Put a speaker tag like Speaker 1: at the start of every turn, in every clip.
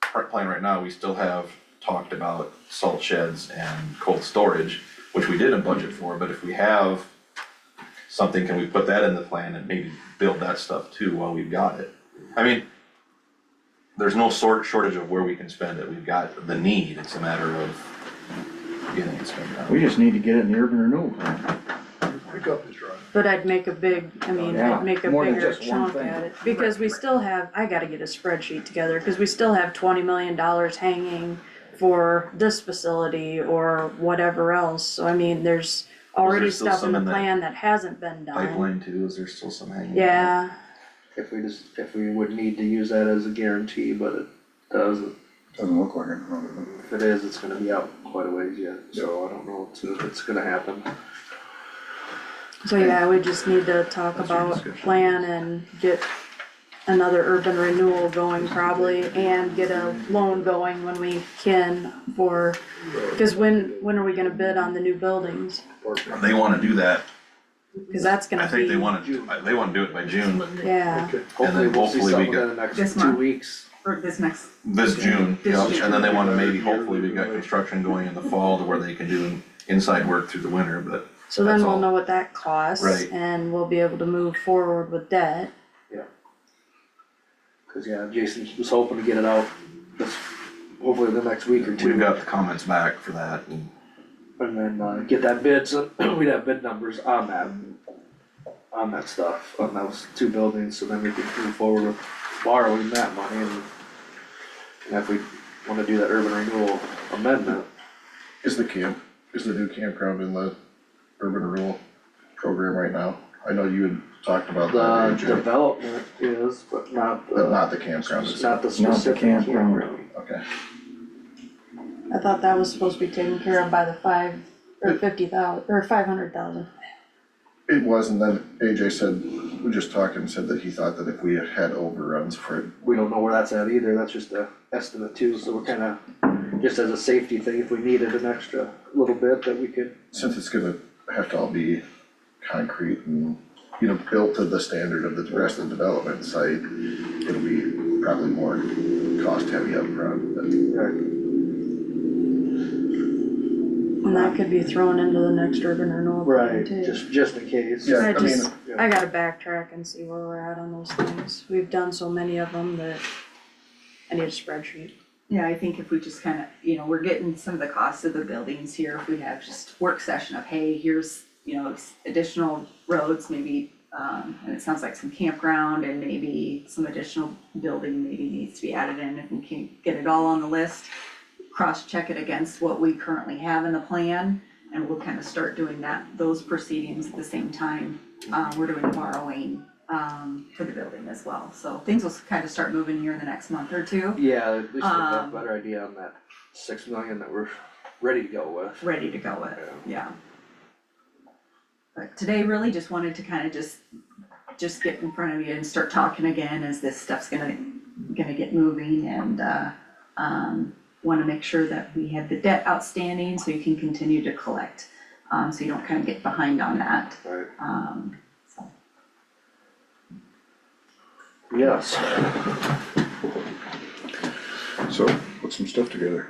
Speaker 1: current plan right now, we still have talked about salt sheds and cold storage, which we did a budget for, but if we have something, can we put that in the plan and maybe build that stuff too while we've got it? I mean, there's no sort, shortage of where we can spend it, we've got the need, it's a matter of getting it spent out.
Speaker 2: We just need to get it in the urban renewal plan.
Speaker 3: Pickup is right.
Speaker 4: But I'd make a big, I mean,
Speaker 2: Oh, Yeah,
Speaker 4: I'd make a
Speaker 2: more than
Speaker 4: bigger
Speaker 2: just one
Speaker 4: chunk
Speaker 2: thing.
Speaker 4: at it, because we still have, I gotta get a spreadsheet together, cause we still have twenty million dollars hanging for this facility or whatever else, so I mean, there's already
Speaker 1: still
Speaker 4: stuff
Speaker 1: some
Speaker 4: in the
Speaker 1: in that
Speaker 4: plan that hasn't been done.
Speaker 1: Pipeline too, is there still some hanging? out?
Speaker 4: Yeah,
Speaker 5: if we just, if we would need to use that as a guarantee, but it doesn't.
Speaker 2: Doesn't look like it.
Speaker 5: If it is, it's gonna be out quite a ways yet, so I don't know if it's- if it's gonna happen.
Speaker 4: so yeah, we just need to talk about plan and get another urban renewal going probably, and get a loan going when we can for, cause when, when are we gonna bid on the new buildings?
Speaker 1: They wanna do that,
Speaker 4: Cause that's gonna
Speaker 1: I
Speaker 4: be.
Speaker 1: think they wanna, they wanna do it by June,
Speaker 4: Yeah,
Speaker 5: Okay, Hopefully, we'll see
Speaker 1: hopefully we
Speaker 5: something
Speaker 1: get-
Speaker 5: in the
Speaker 6: This
Speaker 5: next two
Speaker 6: month.
Speaker 5: weeks.
Speaker 6: for this next,
Speaker 1: This June,
Speaker 6: This
Speaker 1: yeah,
Speaker 6: June.
Speaker 1: and then they wanna maybe, hopefully, we've got construction going in the fall to where they can do inside work through the winter, but.
Speaker 4: so then
Speaker 1: That's
Speaker 4: we'll
Speaker 1: all.
Speaker 4: know what that costs.
Speaker 1: Right.
Speaker 4: And we'll be able to move forward with that.
Speaker 5: Cause yeah, Jason was hoping to get it out this, hopefully the next week or
Speaker 1: We've
Speaker 5: two.
Speaker 1: got the comments back for that, and
Speaker 5: And then uh, get that bid, so we'd have bid numbers on that, on that stuff, on those two buildings, so then we could move forward with borrowing that money and. And if we wanna do that urban renewal amendment,
Speaker 3: Is the camp, is the new campground in the urban renewal program right now? I know you had talked about
Speaker 5: the
Speaker 3: that, AJ,
Speaker 5: development is, but not
Speaker 3: but
Speaker 5: the,
Speaker 3: not the campground,
Speaker 5: it's
Speaker 3: is
Speaker 5: not the specific
Speaker 2: campground.
Speaker 5: campground.
Speaker 3: okay.
Speaker 4: I thought that was supposed to be taken care of by the five, or fifty thousand, or five hundred thousand.
Speaker 3: It was, and then AJ said, we just talked and said that he thought that if we had overruns for,
Speaker 5: We don't know where that's at either, that's just a estimate too, so we're kinda, just as a safety thing, if we needed an extra little bit that we could.
Speaker 3: since it's gonna have to all be concrete and, you know, built to the standard of the rest of the development site, it'll be probably more cost heavy upfront, but.
Speaker 4: And that could be thrown into the next urban renewal. plan,
Speaker 5: Right,
Speaker 4: too.
Speaker 5: just, just in case.
Speaker 3: Yeah,
Speaker 4: I
Speaker 3: I mean,
Speaker 4: just,
Speaker 5: yeah.
Speaker 4: I gotta backtrack and see where we're at on those things. We've done so many of them that I need a spreadsheet.
Speaker 6: yeah, I think if we just kind of, you know, we're getting some of the costs of the buildings here, if we have just work session of, hey, here's, you know, s- additional roads, maybe, um, and it sounds like some campground and maybe some additional building maybe needs to be added in, if we can get it all on the list, cross-check it against what we currently have in the plan, and we'll kind of start doing that, those proceedings at the same time. Uh, we're doing borrowing, um, for the building as well, so things will kind of start moving here in the next month or two.
Speaker 5: Yeah, at least we have a
Speaker 6: Um,
Speaker 5: better idea on that six million that we're ready to go with.
Speaker 6: ready to go with, yeah. But today really just wanted to kind of just, just get in front of you and start talking again as this stuff's gonna, gonna get moving and, uh, um, wanna make sure that we have the debt outstanding so you can continue to collect, um, so you don't kind of get behind on that,
Speaker 5: Right.
Speaker 6: um, so.
Speaker 5: Yes,
Speaker 2: So, put some stuff together.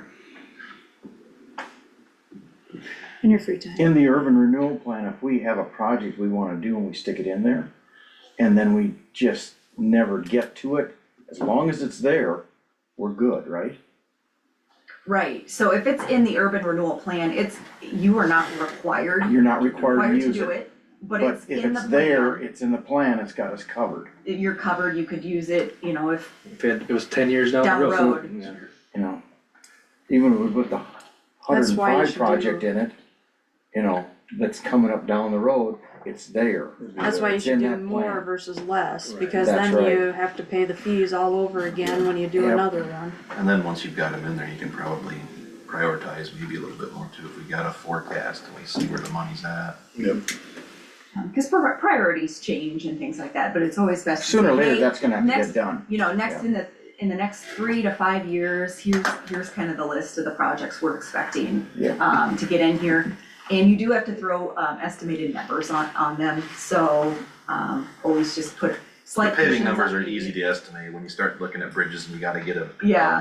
Speaker 4: In your free time.
Speaker 2: In the urban renewal plan, if we have a project we wanna do and we stick it in there, and then we just never get to it, as long as it's there, we're good, right?
Speaker 6: Right, so if it's in the urban renewal plan, it's, you are not required,
Speaker 2: You're not required to
Speaker 6: required to
Speaker 2: use
Speaker 6: do
Speaker 2: it,
Speaker 6: it, but
Speaker 2: but
Speaker 6: it's
Speaker 2: if
Speaker 6: in the
Speaker 2: it's
Speaker 6: plan.
Speaker 2: there, it's in the plan, it's got us covered,
Speaker 6: You're covered, you could use it, you know, if
Speaker 7: If it, it was ten years down
Speaker 6: down
Speaker 7: the
Speaker 6: the
Speaker 7: road.
Speaker 6: road.
Speaker 2: you know? Even if we put the hundred
Speaker 4: That's
Speaker 2: and
Speaker 4: why you
Speaker 2: five
Speaker 4: should
Speaker 2: project
Speaker 4: do-
Speaker 2: in it, you know, that's coming up down the road, it's there.
Speaker 4: That's why you
Speaker 2: It's
Speaker 4: should
Speaker 2: in
Speaker 4: do
Speaker 2: that plan.
Speaker 4: more versus less,
Speaker 7: Right.
Speaker 4: because
Speaker 2: That's
Speaker 4: then
Speaker 2: right.
Speaker 4: you have to pay the fees all over again when you do
Speaker 2: Yep.
Speaker 4: another one.
Speaker 1: and then once you've got them in there, you can probably prioritize maybe a little bit more too, if we got a forecast and we see where the money's at.
Speaker 6: Because Um, priorities change and things like that, but it's always best. to
Speaker 2: Sooner or
Speaker 6: say,
Speaker 2: later,
Speaker 6: "Hey,
Speaker 2: that's gonna have to
Speaker 6: next-
Speaker 2: get done.
Speaker 6: You know, next
Speaker 2: Yeah.
Speaker 6: in the, in the next three to five years, here's, here's kind of the list of the projects we're expecting
Speaker 2: Yeah.
Speaker 6: um, to get in here. And you do have to throw um, estimated numbers on, on them, so um, always just put
Speaker 1: The
Speaker 6: slight.
Speaker 1: paving
Speaker 6: cushions
Speaker 1: numbers
Speaker 6: on
Speaker 1: are
Speaker 6: each.
Speaker 1: easy to estimate, when you start looking at bridges and you gotta get a
Speaker 6: Yeah.